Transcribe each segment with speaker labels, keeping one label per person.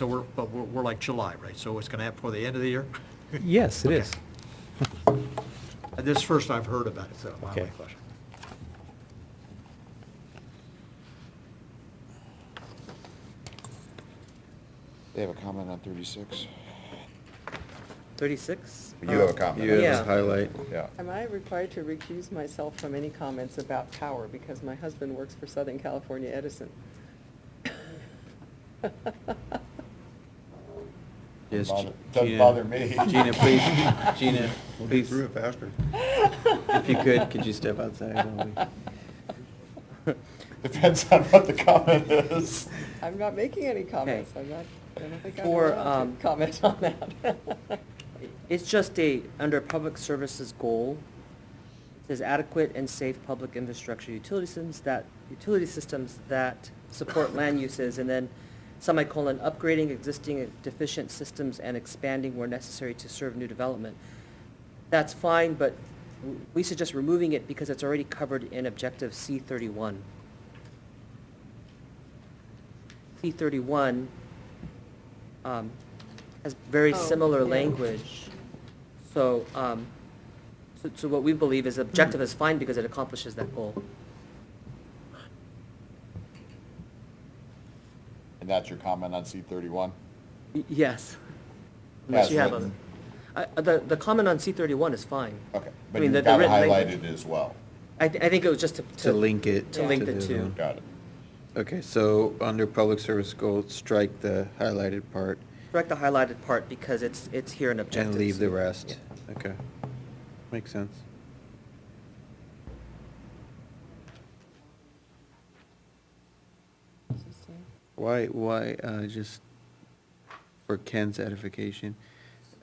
Speaker 1: So we're, but we're, we're like July, right? So it's gonna happen before the end of the year?
Speaker 2: Yes, it
Speaker 1: Okay.
Speaker 2: is.
Speaker 1: Uh, This is first I've heard about it, so my only
Speaker 2: Okay.
Speaker 1: question.
Speaker 3: They have a comment on 36.
Speaker 4: 36?
Speaker 3: You have a
Speaker 4: Oh,
Speaker 3: comment.
Speaker 5: You have
Speaker 4: Yeah.
Speaker 5: a highlight.
Speaker 3: Um, Yeah.
Speaker 4: Am I required to recuse myself from any comments about power because my husband works for Southern California Edison?
Speaker 5: Yes,
Speaker 3: Bother-
Speaker 5: Ge-
Speaker 3: doesn't
Speaker 5: Gina-
Speaker 3: bother me.
Speaker 5: Gina, please, Gina, please,
Speaker 6: faster.
Speaker 5: if you could, could you step outside? while
Speaker 3: Depends on what the comment is.
Speaker 4: I'm not making any comments. I'm not, I don't think I'm
Speaker 7: For,
Speaker 4: allowed
Speaker 7: um,
Speaker 4: to comment on that.
Speaker 7: It's just a, under public services goal, it says adequate and safe public infrastructure utility systems that, utility systems that support land uses, and then semicolon, upgrading existing deficient systems and expanding where necessary to serve new development. That's fine, but w- we suggest removing it because it's already covered in objective C thirty-one. C thirty-one, um, has very
Speaker 4: Oh,
Speaker 7: similar
Speaker 4: yeah.
Speaker 7: language. So, um, so, so what we believe is objective is fine because it accomplishes that goal.
Speaker 3: And that's your comment on C31?
Speaker 7: Y- Yes. Unless
Speaker 3: As
Speaker 7: you have
Speaker 3: written.
Speaker 7: other- I- uh, the, the comment on C thirty-one is fine.
Speaker 3: Okay,
Speaker 7: I
Speaker 3: but
Speaker 7: mean,
Speaker 3: you've
Speaker 7: the- the
Speaker 3: got it
Speaker 7: written language-
Speaker 3: highlighted as well.
Speaker 7: I, thi- I think it was just to.
Speaker 5: To link it.
Speaker 7: To link
Speaker 5: to
Speaker 7: the
Speaker 5: the
Speaker 7: two.
Speaker 5: other
Speaker 3: Got it.
Speaker 5: Okay, so under public service goal, strike the highlighted part
Speaker 7: Correct the highlighted part because it's, it's here in objectives.
Speaker 5: and leave the rest.
Speaker 7: Yeah.
Speaker 5: Okay, makes sense. Why, why, uh, just for Ken's edification,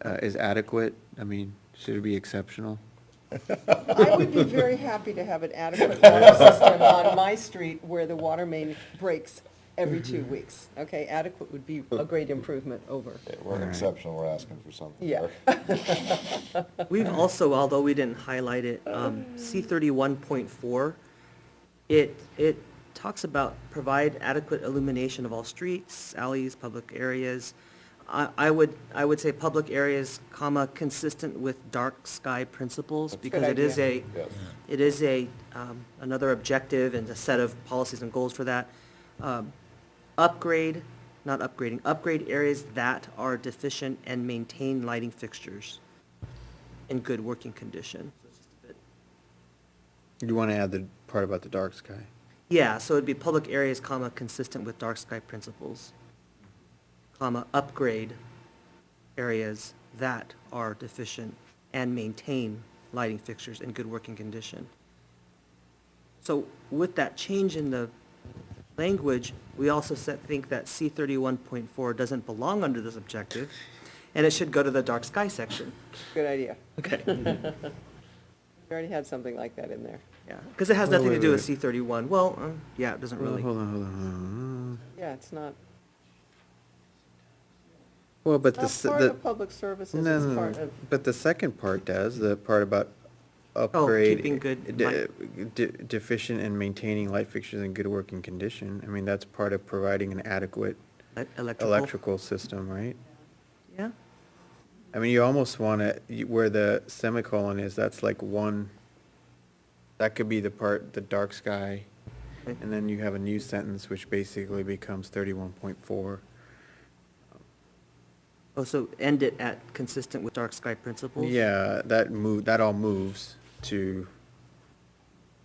Speaker 5: uh, is adequate, I mean, should it be exceptional?
Speaker 4: I would be very happy to have an adequate water system on my street where the water main breaks every two
Speaker 5: Mm-hmm.
Speaker 4: weeks. Okay, adequate would be a great improvement over.
Speaker 3: Okay, We're
Speaker 5: Alright.
Speaker 3: exceptional, we're asking for something.
Speaker 4: Yeah.
Speaker 3: there.
Speaker 7: We've also, although we didn't highlight it, um, C thirty-one point four, it, it talks about provide adequate illumination of all streets, alleys, public areas. I, I would, I would say public areas, comma, consistent with dark sky principles,
Speaker 3: That's a
Speaker 7: because
Speaker 4: good
Speaker 7: it is a,
Speaker 4: idea.
Speaker 3: Yes.
Speaker 7: it is a, um, another objective and a set of policies and goals for that. Um, Upgrade, not upgrading, upgrade areas that are deficient and maintain lighting fixtures in good working condition.
Speaker 5: You wanna add the part about the dark sky?
Speaker 7: Yeah, so it'd be public areas, comma, consistent with dark sky principles, comma, upgrade areas that are deficient and maintain lighting fixtures in good working condition. So with that change in the language, we also said, think that C thirty-one point four doesn't belong under this objective, and it should go to the dark sky section.
Speaker 4: Good idea.
Speaker 7: Okay.
Speaker 4: We already had something like that in there.
Speaker 7: Yeah, because it has
Speaker 5: Oh,
Speaker 7: nothing to
Speaker 5: wait,
Speaker 7: do with
Speaker 5: wait.
Speaker 7: C thirty-one. Well, um, yeah, it doesn't
Speaker 5: Well,
Speaker 7: really.
Speaker 5: Hold on, hold on, hold on.
Speaker 4: Yeah, it's not,
Speaker 5: Well, but the.
Speaker 4: not
Speaker 5: s-
Speaker 4: part
Speaker 5: the-
Speaker 4: of public services,
Speaker 5: No,
Speaker 4: it's
Speaker 5: no,
Speaker 4: part
Speaker 5: no.
Speaker 4: of,
Speaker 5: But the second part does, the part about upgrade.
Speaker 7: Oh, keeping good
Speaker 5: de-
Speaker 7: light-
Speaker 5: de- Deficient and maintaining light fixtures in good working condition. I mean, that's part of providing an adequate
Speaker 7: E- Electrical.
Speaker 5: electrical system, right?
Speaker 7: Yeah.
Speaker 5: I mean, you almost want to, where the semicolon is, that's like one, that could be the part, the dark sky.
Speaker 7: Okay.
Speaker 5: And then you have a new sentence, which basically becomes thirty-one point four.
Speaker 7: Oh, so end it at consistent with dark sky principles?
Speaker 5: Yeah, that move, that all moves to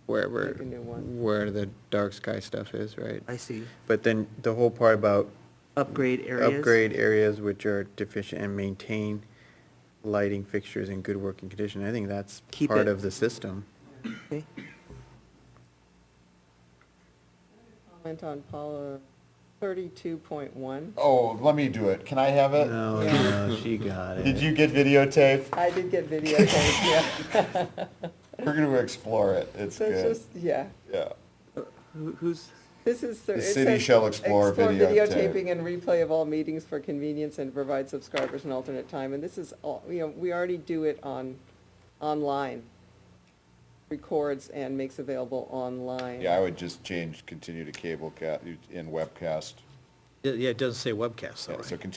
Speaker 5: wherever,
Speaker 4: Make a new one.
Speaker 5: where the dark sky stuff is, right?
Speaker 7: I see.
Speaker 5: But then the whole part about
Speaker 7: Upgrade areas?
Speaker 5: upgrade areas which are deficient and maintain lighting fixtures in good working condition, I think that's
Speaker 7: Keep
Speaker 5: part
Speaker 7: it.
Speaker 5: of the system.
Speaker 7: Okay.
Speaker 4: comment on Paula, thirty-two point one.
Speaker 3: Oh, let me do it. Can I have it?
Speaker 5: No, no, she got
Speaker 3: Did
Speaker 5: it.
Speaker 3: you get videotape?
Speaker 4: I did get videotaped, yeah.
Speaker 3: We're gonna explore it. It's
Speaker 4: So it's
Speaker 3: good.
Speaker 4: just, yeah,
Speaker 3: Yeah.
Speaker 7: Who- Who's,
Speaker 4: this is.
Speaker 3: The
Speaker 4: it
Speaker 3: city
Speaker 4: says,
Speaker 3: shall explore videotape."
Speaker 4: videotaping and replay of all meetings for convenience and provide subscribers an alternate time. And this is all, you know, we already do it on, online. Records and makes available online.
Speaker 3: Yeah, I would just change, continue to cable cat, in webcast.
Speaker 1: Yeah, it doesn't say webcast, though,
Speaker 3: Yeah,
Speaker 1: right?
Speaker 3: So continue